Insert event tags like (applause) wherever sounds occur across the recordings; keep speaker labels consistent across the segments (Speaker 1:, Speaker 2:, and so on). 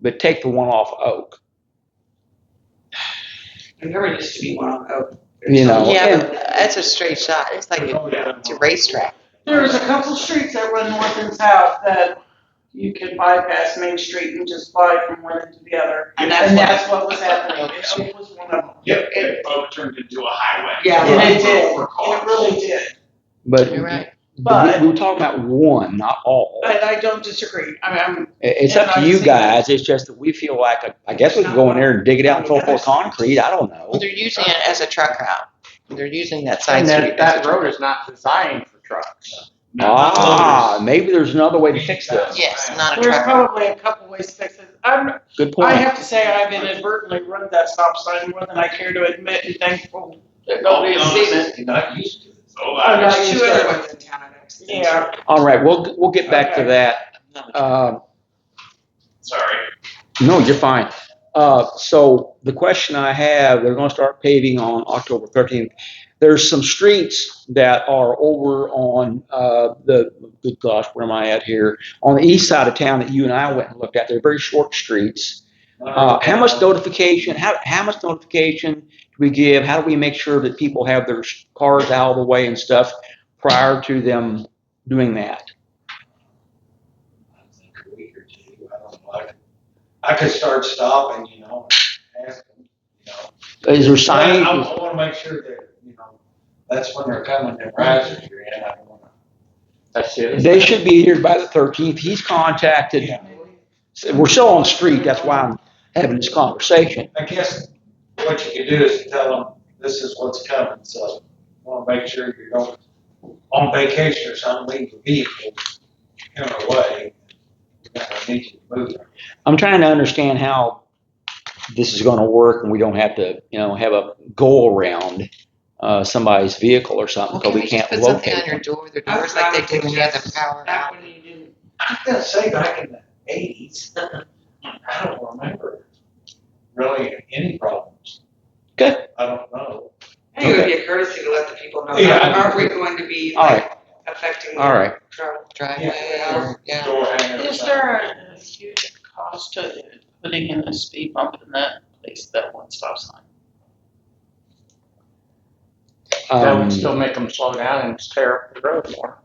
Speaker 1: but take the one off Oak.
Speaker 2: There never used to be one on Oak.
Speaker 1: You know,
Speaker 3: Yeah,
Speaker 1: and-
Speaker 3: but that's a straight shot. It's like a, it's a racetrack.
Speaker 2: There was a couple streets that run north and south that you can bypass Main Street and just fly from one end to the other.
Speaker 3: And that's
Speaker 2: And
Speaker 3: what-
Speaker 2: that's what was happening. It was one of them.
Speaker 4: Yep,
Speaker 2: It-
Speaker 4: it both turned into a highway.
Speaker 2: Yeah, and it
Speaker 4: For-
Speaker 2: did.
Speaker 4: for
Speaker 2: It
Speaker 4: cars.
Speaker 2: really did.
Speaker 1: but
Speaker 3: You're right.
Speaker 2: But-
Speaker 1: we, we're talking about one, not all. I-
Speaker 2: But I don't disagree. I mean, I'm,
Speaker 1: It's up to
Speaker 2: and
Speaker 1: you
Speaker 2: I've seen-
Speaker 1: guys. It's just that we feel like a, I guess we could go in there and dig it out and fill it full of concrete. I don't know.
Speaker 3: Well, they're using it as a truck route. They're using that side
Speaker 5: And
Speaker 3: street.
Speaker 5: that, that road is not designed for trucks.
Speaker 1: Ah, maybe there's another way to fix this.
Speaker 3: Yes, not a
Speaker 2: there's
Speaker 3: truck route.
Speaker 2: probably a couple ways to fix it. I'm,
Speaker 1: Good
Speaker 2: I
Speaker 1: point.
Speaker 2: have to say, I've inadvertently run that stop sign more than I care to admit, and thankful that nobody has seen it.
Speaker 4: You're not used to it. So I,
Speaker 2: I'm not used
Speaker 3: Two
Speaker 2: to
Speaker 3: other
Speaker 2: it.
Speaker 3: ones in town are next.
Speaker 2: Yeah,
Speaker 1: All right, we'll, we'll get back to
Speaker 2: Okay.
Speaker 1: that. Um,
Speaker 4: sorry.
Speaker 1: No, you're fine. Uh, so the question I have, they're going to start paving on October 13th. There's some streets that are over on uh, the good gosh, where am I at here? On the east side of town that you and I went and looked at. They're very short streets. Uh, how much notification? How how much notification do we give? How do we make sure that people have their cars out of the way and stuff prior to them doing that?
Speaker 6: a week or two, I don't know. I could- I could start stopping, you know, and ask them, you know.
Speaker 1: Is there
Speaker 6: I- I,
Speaker 1: signage?
Speaker 6: wanna make sure that, you know, that's when they're coming, the risers are in, I don't wanna.
Speaker 5: That's it.
Speaker 1: They should be here by the 13th. He's contacted. So We're still on street, that's why I'm having this conversation.
Speaker 6: I guess what you could do is tell them, this is what's coming, so wanna make sure you don't, on vacation or something, leave the vehicle in a way. You're gonna need to move it.
Speaker 1: I'm trying to understand how this is gonna work and we don't have to, you know, have a go around, uh, somebody's vehicle or something,
Speaker 3: Well,
Speaker 1: because
Speaker 3: can
Speaker 1: we
Speaker 3: we just
Speaker 1: can't
Speaker 3: put something on
Speaker 1: locate
Speaker 3: your
Speaker 1: them.
Speaker 3: door? The
Speaker 2: I
Speaker 3: doors like they did when you had the
Speaker 2: just-
Speaker 3: power
Speaker 2: that
Speaker 3: out.
Speaker 2: one you didn't.
Speaker 6: I gotta say, back in the eighties, (laughs) I don't remember really any problems.
Speaker 1: Good.
Speaker 6: I don't know.
Speaker 7: I think it would be a courtesy to let the people know,
Speaker 6: Yeah,
Speaker 7: that
Speaker 6: I-
Speaker 7: aren't we going to be
Speaker 1: All right,
Speaker 7: affecting
Speaker 1: all
Speaker 7: the
Speaker 1: right.
Speaker 7: travel?
Speaker 3: Driveway
Speaker 6: Yeah.
Speaker 3: or, yeah.
Speaker 6: Door hangers.
Speaker 2: Is there a huge cost to putting in a speed bump in that place, that one stop sign?
Speaker 5: That would
Speaker 1: Um,
Speaker 5: still make them slow down and tear up the road more.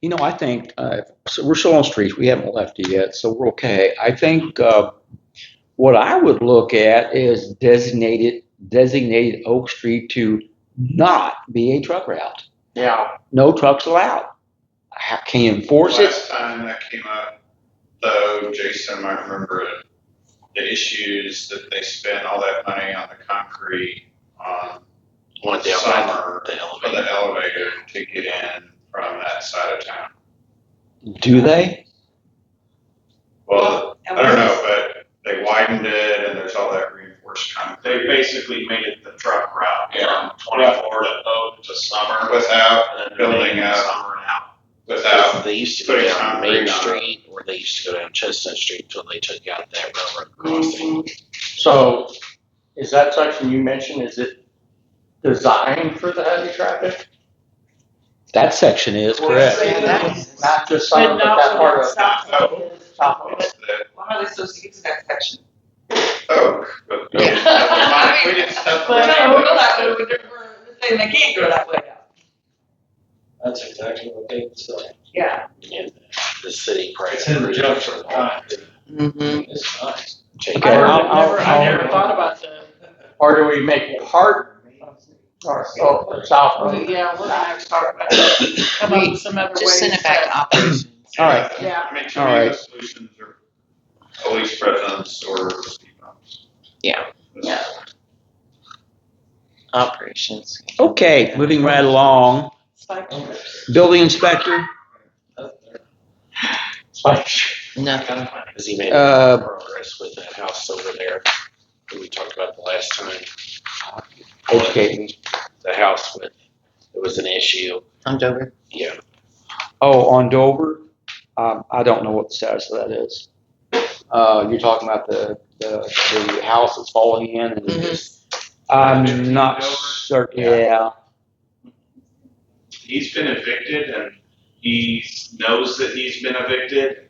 Speaker 1: You know, I think, uh, so we're still on streets, we haven't left it yet, so we're okay. I think, uh, what I would look at is designated, designated Oak Street to not be a truck route.
Speaker 5: Yeah.
Speaker 1: No trucks allowed. How can you enforce it?
Speaker 8: Last time that came up, though, Jason might remember it, the issues that they spent all that money on the concrete on
Speaker 9: One down
Speaker 8: summer
Speaker 9: by the
Speaker 8: for
Speaker 9: elevator.
Speaker 8: the elevator to get in from that side of town.
Speaker 1: Do they?
Speaker 8: Well,
Speaker 7: And
Speaker 8: I don't
Speaker 7: we-
Speaker 8: know, but they widened it and there's all that reinforced concrete
Speaker 4: They basically made it the truck route
Speaker 8: Yeah.
Speaker 4: from twenty-four to Oak to Summer.
Speaker 8: without,
Speaker 9: And then
Speaker 8: Building
Speaker 9: they-
Speaker 8: up.
Speaker 4: Summer and out.
Speaker 8: without,
Speaker 9: They used to
Speaker 8: putting
Speaker 9: go down
Speaker 8: concrete
Speaker 9: Main
Speaker 8: on it.
Speaker 9: Street or they used to go down Chestnut Street until they took out that railroad crossing.
Speaker 5: So is that section you mentioned, is it designed for the heavy traffic?
Speaker 1: That section is
Speaker 2: Well,
Speaker 1: correct.
Speaker 2: say that.
Speaker 5: Not just some,
Speaker 2: But
Speaker 5: but that
Speaker 2: not
Speaker 5: part
Speaker 2: one
Speaker 5: of
Speaker 2: stop sign is.
Speaker 5: top of it?
Speaker 8: what's the
Speaker 7: Why are they supposed to get to that section?
Speaker 8: Oak. but-
Speaker 9: Yeah.
Speaker 8: We didn't stop
Speaker 7: But they
Speaker 8: around
Speaker 7: don't go that way,
Speaker 8: it.
Speaker 7: we're, we're saying they can't go that way now.
Speaker 6: That's exactly what they said.
Speaker 7: Yeah.
Speaker 9: And The city. probably
Speaker 6: It's in the
Speaker 9: approved
Speaker 6: junk
Speaker 9: it for
Speaker 6: for
Speaker 9: a while.
Speaker 6: time.
Speaker 3: Mm-hmm.
Speaker 6: It's nice.
Speaker 9: Take
Speaker 1: Okay,
Speaker 9: it
Speaker 5: Or
Speaker 1: I'll-
Speaker 5: I never, I never
Speaker 1: I'll-
Speaker 5: thought about that. Or do we make it harder? Or, oh, south road?
Speaker 2: Yeah, we're gonna have to talk about it. Come up with some other ways.
Speaker 3: Just send it back
Speaker 2: that-
Speaker 3: to operations.
Speaker 1: All right.
Speaker 2: Yeah.
Speaker 8: I mean, to
Speaker 1: All
Speaker 8: me,
Speaker 1: right.
Speaker 8: the solutions are police presence or speed bumps.
Speaker 3: Yeah.
Speaker 8: Yeah.
Speaker 3: Operations.
Speaker 1: Okay, moving right along.
Speaker 2: It's like-
Speaker 1: Building inspector,
Speaker 5: It's like,
Speaker 3: Nothing.
Speaker 9: Has he made
Speaker 1: Uh,
Speaker 9: progress with that house over there that we talked about the last time?
Speaker 1: educate me.
Speaker 9: The house with, it was an issue.
Speaker 3: I'm Dover.
Speaker 9: Yeah.
Speaker 1: Oh, on Dover, um, I don't know what the status of that is. Uh, you're talking about the, the, the house that's falling in and
Speaker 3: Mhm.
Speaker 1: I'm not certain, yeah.
Speaker 8: He's been evicted and he knows that he's been evicted